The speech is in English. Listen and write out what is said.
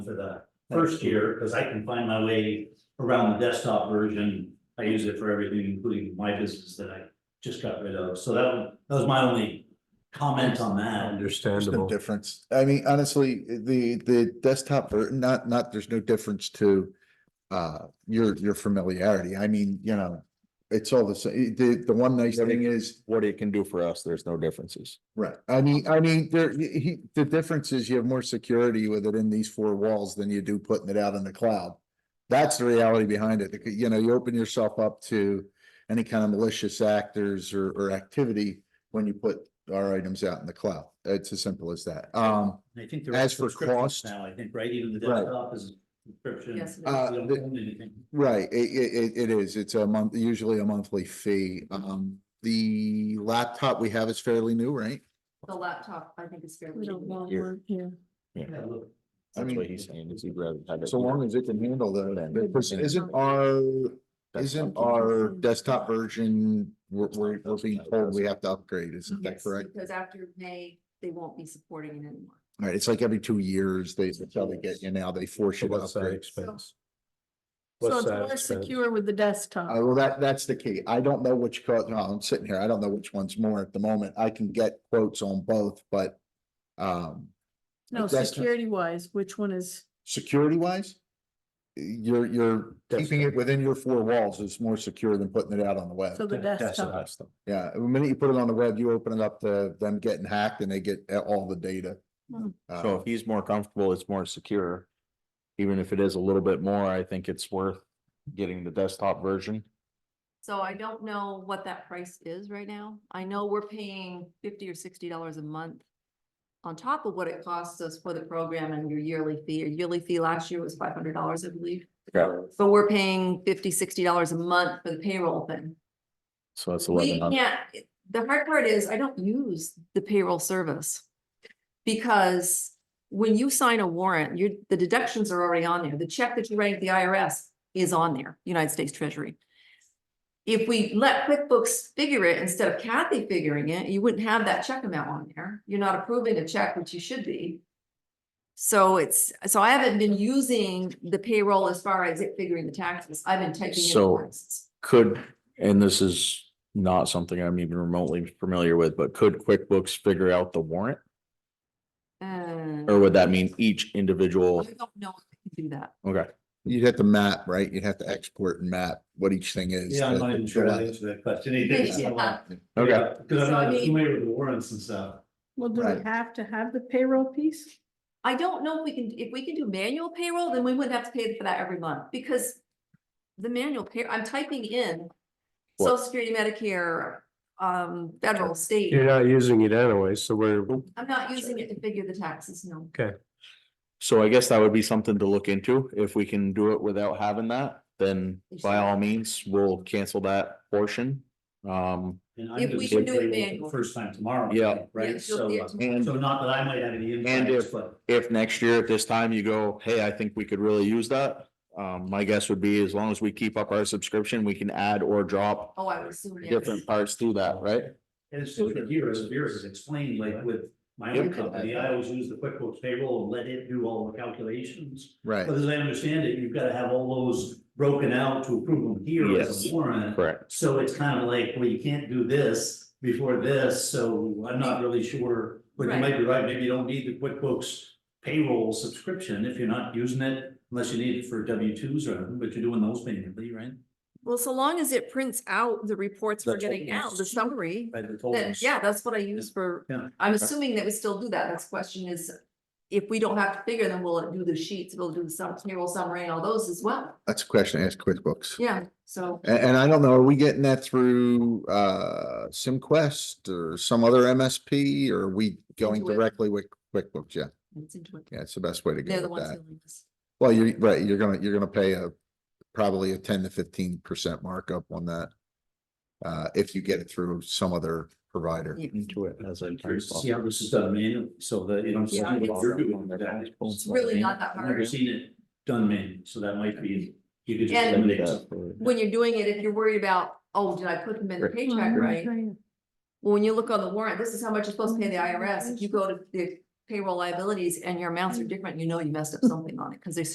for the first year, because I can find my way around the desktop version. I use it for everything, including my business that I just got rid of, so that, was- that was my only comment on that. There's no Understandable. difference. I mean, honestly, the, the desktop, ver- not, not, there's no difference to uh, your, your familiarity. I mean, you know, it's all the same. The, the one nice thing is, what it can do for us, there's no differences. right, I mean, I mean, there, he, he- the difference is you have more security with it in these four walls than you do putting it out in the cloud. That's the reality behind it. You know, you open yourself up to any kind of malicious actors or, or activity when you put our items out in the cloud. It's as simple as that. Um, I think there are As for subscriptions cost- now, I think, right, even the Right. desktop is subscription. Yes, it We is. Uh, don't the- own anything. Right, it, it, it, it is, it's a month, usually a monthly fee. Um, the laptop we have is fairly new, right? The laptop, I think is fairly. We don't new. want Here. one here. Yeah, look, I That's mean- what he's saying, is he'd rather have it. So long as it can handle Then- that, because isn't our, isn't our desktop version, we're, we're, we're being told we have to upgrade, isn't that Yes, correct? Because after May, they won't be supporting it anymore. All right, it's like every two years, they, that's how they get you now, they force you to What's that upgrade. expense? So What's it's that more expense? secure with the Uh, desktop. well, that, that's the key. I don't know which, co- no, I'm sitting here. I don't know which one's more at the moment. I can get quotes on both, but um, No, desktop- security wise, which one is, security wise, you're, you're keeping it within your four walls is more secure than putting it out on the so web. the desktop, Desktop. Yeah, the minute you put it on the web, you open it up to them getting hacked and they get all the data. Hmm. Uh, So if he's more comfortable, it's more secure. Even if it is a little bit more, I think it's worth getting the desktop version. So I don't know what that price is right now. I know we're paying fifty or sixty dollars a month. On top of what it costs us for the program and your yearly fee, your yearly fee last year was five hundred dollars, I believe. Yeah. So we're paying fifty, sixty dollars a month for the payroll thing. So that's We eleven hundred. can't, the hard part is I don't use the payroll service. Because when you sign a warrant, you, the deductions are already on there. The check that you write at the IRS is on there, United States Treasury. If we let QuickBooks figure it instead of Kathy figuring it, you wouldn't have that check amount on there. You're not approving a check, which you should be. So it's, so I haven't been using the payroll as far as it figuring the taxes. I've been typing in the So- warrants. Could, and this is not something I'm even remotely familiar with, but could QuickBooks figure out the warrant? Or would that mean each individual? I don't know if we can do that. Okay, You'd have to map, right? You'd have to export and map what each thing is. Yeah, I'm not even sure I Yeah. answered that question. It didn't Yeah. come up. okay. Yeah, Because I'm So, I not mean- familiar with the warrants and stuff. well, do Right. we have to have the payroll piece? I don't know if we can, if we can do manual payroll, then we wouldn't have to pay for that every month, because the manual pay, I'm typing in What? social security, Medicare, um, federal, state. You're not using it anyway, so we're, I'm not using it to figure the taxes, no. So I guess that would be something to look into. If we can do it without having that, then by all means, we'll cancel that portion. Um, And I'm If gonna we can be do it available the manual. First time tomorrow. Yeah. Yeah, Right, she'll so, be uh, at- and so not that I might have any And insights, if- but. if next year at this time you go, hey, I think we could really use that. Um, my guess would be as long as we keep up our subscription, we can add or drop Oh, I would assume. yes. different parts through that, right? And it's just here, as Vera has explained, like with my own company, I always use the QuickBooks payroll and let it do all the calculations. Right. But as I understand it, you've got to have all those broken out to approve them here as Yes. a warrant. Correct. So it's kind of like, well, you can't do this before this, so I'm not really sure. But you Right. might be right, maybe you don't need the QuickBooks payroll subscription if you're not using it, unless you need it for W twos or, anything, but you're doing those manually, right? Well, so long as it prints out the reports we're That's what getting out, the was- summary, By the then, totals. yeah, that's what I use for, Yeah. I'm assuming that we still do that. Next question is, if we don't have to figure, then we'll do the sheets, we'll do the sum, payroll summary and all those as well. That's a question I asked QuickBooks. Yeah, so. A- And, I don't know, are we getting that through, uh, SimQuest or some other MSP? Or are we going Intuit. directly with QuickBooks? Yeah, It's into it. yeah, it's the best way to They're go the with ones that. who leave us. Well, you're right, you're gonna, you're gonna pay a, probably a ten to fifteen percent markup on that. Uh, if you get it through some other provider. Yeah. Into it as I. I'm curious to see how this is done manually, so that you don't see Yeah, what it's- you're doing. with that. It's really not that I've never hard. seen it done manually, so that might be, you could just And- eliminate some. When you're doing it, if you're worried about, oh, did I put them in the Mm-hmm. paycheck right? Right. Well, When you look on the warrant, this is how much you're supposed to pay the IRS. If you go to the payroll liabilities and your amounts are different, you know you messed up something on it, because they